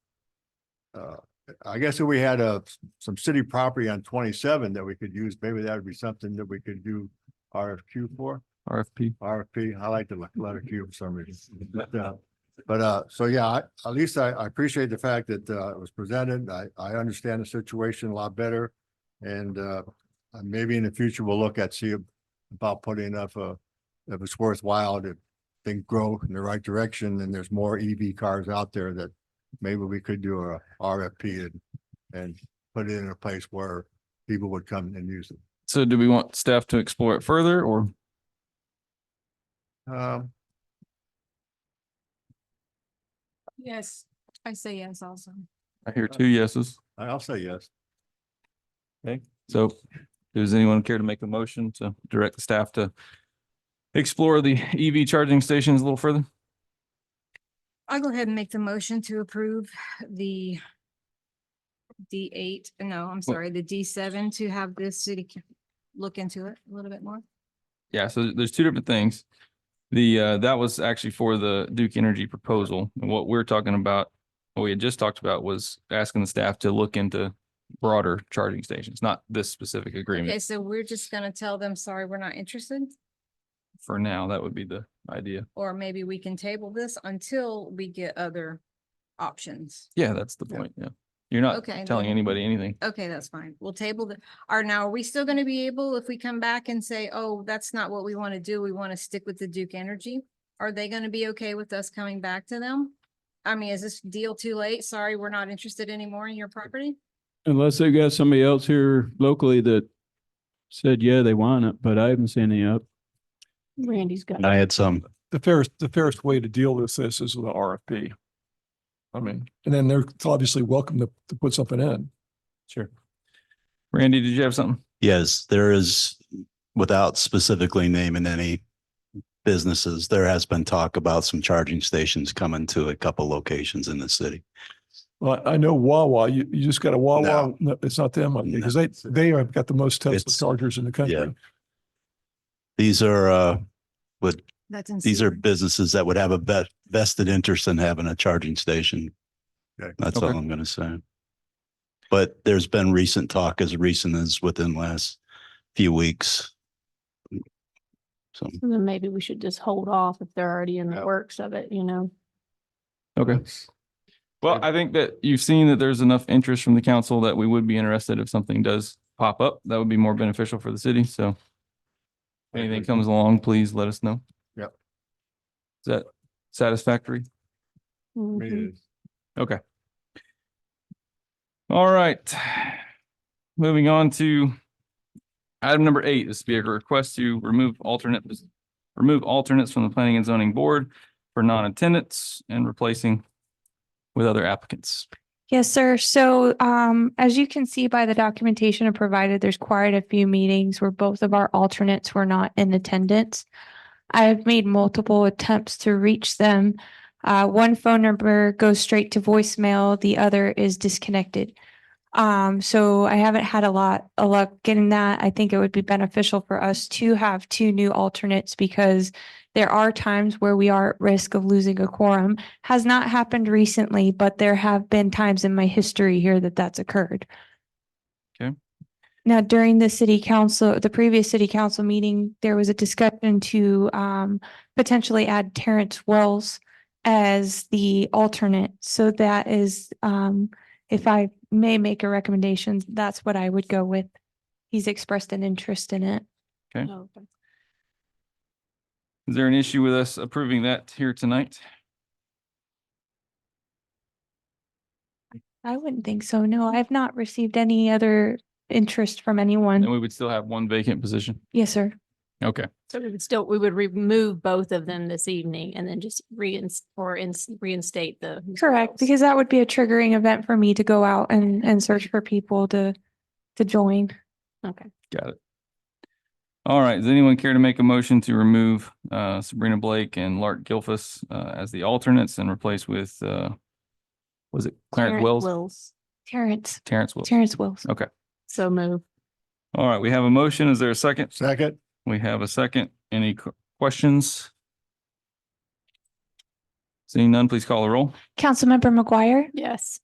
uh, I guess if we had a, some city property on twenty-seven that we could use, maybe that would be something that we could do RFQ for, RFP. RFP. I like the le- letter Q for some reason. But, uh, But, uh, so yeah, I, at least I, I appreciate the fact that, uh, it was presented. I, I understand the situation a lot better. And, uh, uh, maybe in the future we'll look at, see about putting up a, if it's worthwhile to think grow in the right direction and there's more EV cars out there that maybe we could do a RFP and, and put it in a place where people would come and use it. So do we want staff to explore it further or? Um, Yes, I say yes also. I hear two yeses. I- I'll say yes. So does anyone care to make a motion to direct the staff to explore the EV charging stations a little further? I'll go ahead and make the motion to approve the D eight, no, I'm sorry, the D seven to have the city c- look into it a little bit more. Yeah, so there's two different things. The, uh, that was actually for the Duke Energy proposal. And what we're talking about, what we had just talked about was asking the staff to look into broader charging stations, not this specific Okay, agreement. so we're just gonna tell them, sorry, we're not interested, For now, that would be the idea. or maybe we can table this until we get other options. Yeah, that's the Yeah. point. Yeah. You're not Okay, telling then- anybody anything. Okay, that's fine. We'll table the, are now, are we still gonna be able, if we come back and say, oh, that's not what we wanna do, we wanna stick with the Duke Energy? Are they gonna be okay with us coming back to them? I mean, is this deal too late? Sorry, we're not interested anymore in your property? Unless they've got somebody else here locally that said, yeah, they want it, but I haven't seen any up. Randy's got. I had some. the fairest, the fairest way to deal with this is with a RFP. I mean, And then they're obviously welcome to, to put something in. sure. Randy, did you have something? Yes, there is, without specifically naming any businesses, there has been talk about some charging stations coming to a couple locations in the city. Well, I know Wawa, you, you just got a Wawa, no, it's not them, because they, they have got the most Tesla It's- chargers in the country. These are, uh, would, That's. these are businesses that would have a vet- vested interest in having a charging station. Okay. That's all Okay. I'm gonna say. But there's been recent talk as recent as within last few weeks. So. Then maybe we should just hold off if they're already in the works of it, you know? Okay. Well, I think that you've seen that there's enough interest from the council that we would be interested if something does pop up. That would be more beneficial for the city. So if anything comes along, please let us know. Yep. Is that satisfactory? I mean, Mhm. it is. Okay. All right. Moving on to item number eight, this would be a request to remove alternate, remove alternates from the planning and zoning board for non-attendance and replacing with other applicants. Yes, sir. So um, as you can see by the documentation provided, there's quite a few meetings where both of our alternates were not in attendance. I have made multiple attempts to reach them. Uh, one phone number goes straight to voicemail, the other is disconnected. Um, so I haven't had a lot of luck getting that. I think it would be beneficial for us to have two new alternates because there are times where we are at risk of losing a quorum has not happened recently, but there have been times in my history here that that's occurred. Okay. Now, during the city council, the previous city council meeting, there was a discussion to um potentially add Terrence Wells as the alternate. So that is um, if I may make a recommendation, that's what I would go with. He's expressed an interest in it. Oh, okay. Is there an issue with us approving that here tonight? I wouldn't think so. No, I've not received any other interest from anyone. And we would still have one vacant position. Yes, sir. Okay, So we would still, we would remove both of them this evening and then just reinst, or ins- reinstate the. Mr. Correct, Wells. because that would be a triggering event for me to go out and, and search for people to, to join. Okay. got it. All right, does anyone care to make a motion to remove uh, Sabrina Blake and Lark Gilfus uh, as the alternates and replace with, uh, was it Clarence Wells? Terrence, Terrence Wills. Terrence Wills. So move. All right, we have a motion. Is there a second? Second, We have a second. Any qu- questions? Seeing none, please call the roll. Councilmember McGuire, Yes.